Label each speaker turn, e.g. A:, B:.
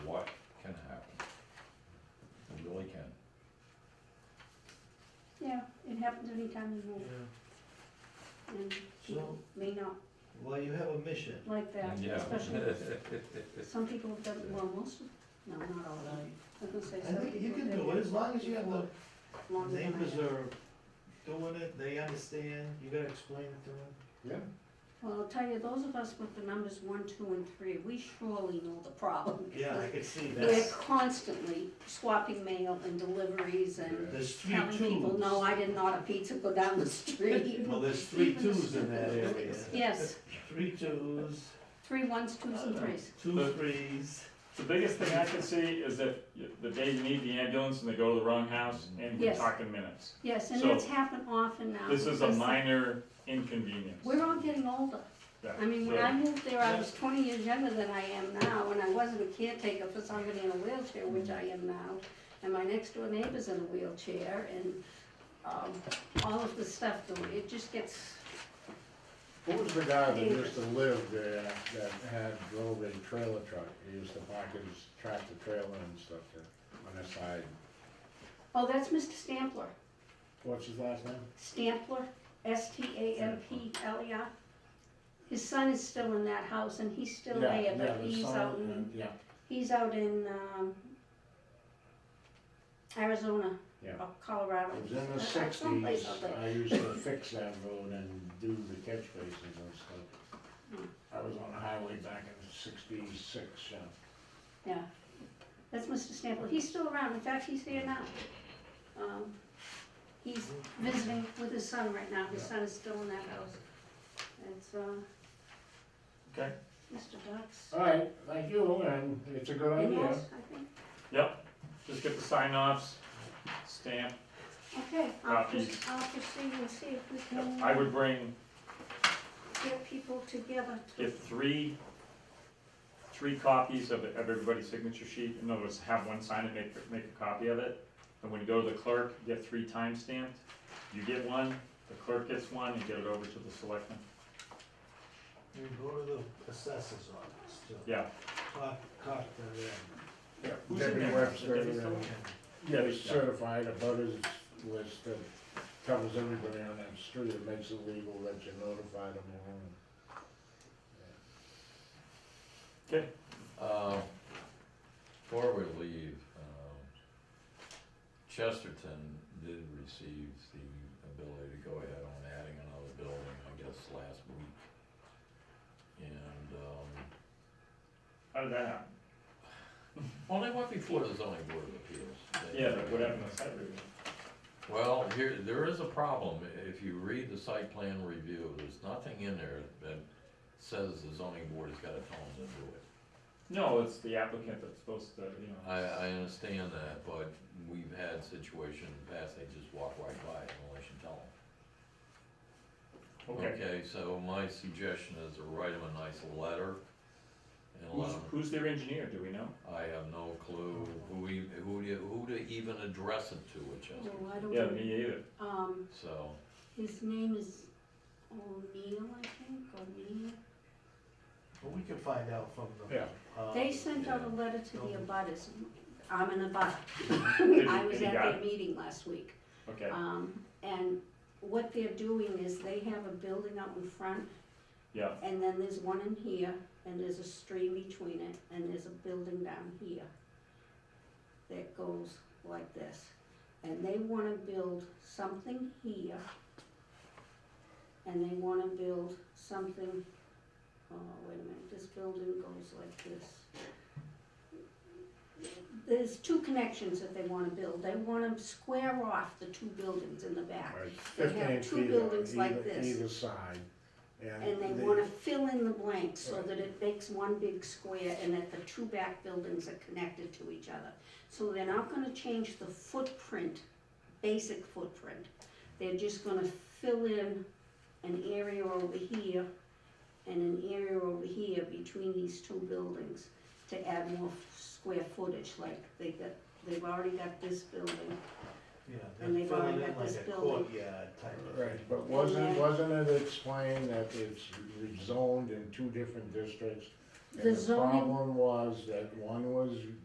A: anytime you want,
B: Yeah.
A: and people
B: So-
A: may not
B: Well, you have a mission.
A: like that,
C: Yeah.
A: especially, some people don't, well, most, of- no, not all of them. I was gonna say
B: I
A: some
B: think you
A: people
B: can
A: do
B: do it, as long as you have the
A: longer than I
B: neighbors
A: have.
B: are doing it, they understand, you gotta explain it to them.
D: Yeah.
A: Well, I'll tell you, those of us with the numbers one, two, and three, we surely know the problem.
B: Yeah, I could see
A: We're
B: that.
A: constantly swapping mail and deliveries and
B: There's three
A: telling people,
B: twos.
A: no, I didn't order pizza, go down the street.
B: Well, there's three
A: Even the
B: twos in that
A: stupid
B: area.
A: things. Yes,
B: Three twos,
A: three ones, twos, and threes.
B: two threes.
E: The biggest thing I can see is that y- the day you need the ambulance and they go to the wrong house and we're
A: Yes.
E: talking minutes.
A: Yes, and
E: So,
A: that's happened often now.
E: This is a
A: because
E: minor inconvenience.
A: We're all getting older.
E: Yeah,
A: I mean, when
E: so-
A: I moved there, I was twenty years younger than I am now, and I wasn't a caretaker for somebody in a wheelchair, which I am now. And my next door neighbor's in a wheelchair, and, um, all of the stuff, though, it just gets,
D: Who was the guy that used to live there that had drove in trailer truck? He used to park his tractor trailer and stuff there on the side.
A: oh, that's Mr. Stampler.
D: What's his last name?
A: Stampler, S T A M P L E R. His son is still in that house, and he's still
D: Yeah,
A: there,
D: yeah,
A: but
D: the
A: he's um,
D: son,
A: out in,
D: and- Yeah,
A: he's out in, um, Arizona,
D: yeah.
A: or Colorado.
D: It was in the
A: Uh, someplace
D: sixties,
A: out there.
D: I used to fix that road and do the catch basins and stuff.
A: Hmm.
D: I was on the highway back in sixty-six, yeah.
A: Yeah, that's Mr. Stample, he's still around, in fact, he's here now. Um, He's visiting with his son right now, his son is still in that house. It's, uh,
E: Okay.
A: Mr.
E: Uh,
A: Ducks.
D: All right, thank you, and it's a good
A: Anything
D: idea.
A: else, I think?
E: Yep, just get the sign offs, stamp.
A: Okay, I'll
E: Copies.
A: just, I'll proceed and see if we
E: Uh, I
A: can
E: would bring,
A: get people together to,
E: get three, three copies of of everybody's signature sheet. In other words, have one sign and make, make a copy of it. And when you go to the clerk, get three time stamped. You get one, the clerk gets one, and get it over to the selectmen.
B: You go to the assessors office, too.
E: Yeah,
B: Talk, talk to them.
D: Yeah,
E: Who's in
D: Debbie
E: there?
D: Webster
E: Debbie's still
D: and-
E: in?
D: Yeah, it's certified abutters list that covers everybody on that street, it makes it legal that you notify them and.
C: Uh, Before we leave, um, Chesterton did receive the ability to go ahead on adding another building, I guess, last week. And, um,
E: how did that happen?
C: well, they went before the zoning board of appeals. They-
E: Yeah, that would happen on site review.
C: Well, here, there is a problem, if you read the site plan review, there's nothing in there that says the zoning board has gotta tell them to do it.
E: No, it's the applicant that's supposed to, you know.
C: I, I understand that, but we've had situations in the past, they just walk right by it unless you tell them.
E: Okay,
C: Okay, so my suggestion is to write them a nice letter and let
E: who's,
C: 'em-
E: who's their engineer, do we know?
C: I have no clue who e who to, who to even address it to at
A: well, Oh, I
C: Chesterton,
E: Yeah,
A: don't,
E: me either.
A: um,
C: so.
A: his name is O'Neill, I think, O'Neill.
B: Well, we can find out from the.
D: Yeah.
B: uh,
A: They sent out a letter to the abutters, I'm an abutter,
E: Did he-
A: I
E: did
A: was
E: he
A: at
E: got
A: their
E: it?
A: meeting last week.
E: Okay,
A: Um, and what they're doing is they have a building out in front,
E: yeah,
A: and then there's one in here, and there's a stream between it, and there's a building down here that goes like this. And they wanna build something here, and they wanna build something, oh, wait a minute, this building goes like this. There's two connections that they wanna build, they wanna square off the two buildings in the back.
D: Right,
A: They have
D: Fifteen
A: two
D: feet
A: buildings
D: on
A: like
D: either,
A: this.
D: either side.
A: And they
D: the-
A: wanna fill in the blanks so
D: Right.
A: that it makes one big square and that the two back buildings are connected to each other. So they're not gonna change the footprint, basic footprint. They're just gonna fill in an area over here and an area over here between these two buildings to add more f- square footage, like they got, they've already got this building.
B: Yeah,
A: And
B: they
A: they've
B: fill
A: already
B: it in
A: got
B: like
A: this
B: a
A: building.
B: courtyard type of thing.
D: Right, but wasn't,
A: Yeah.
D: wasn't it explained that it's zoned in two different districts?
A: The
D: And the
A: zoning-
D: problem was that one was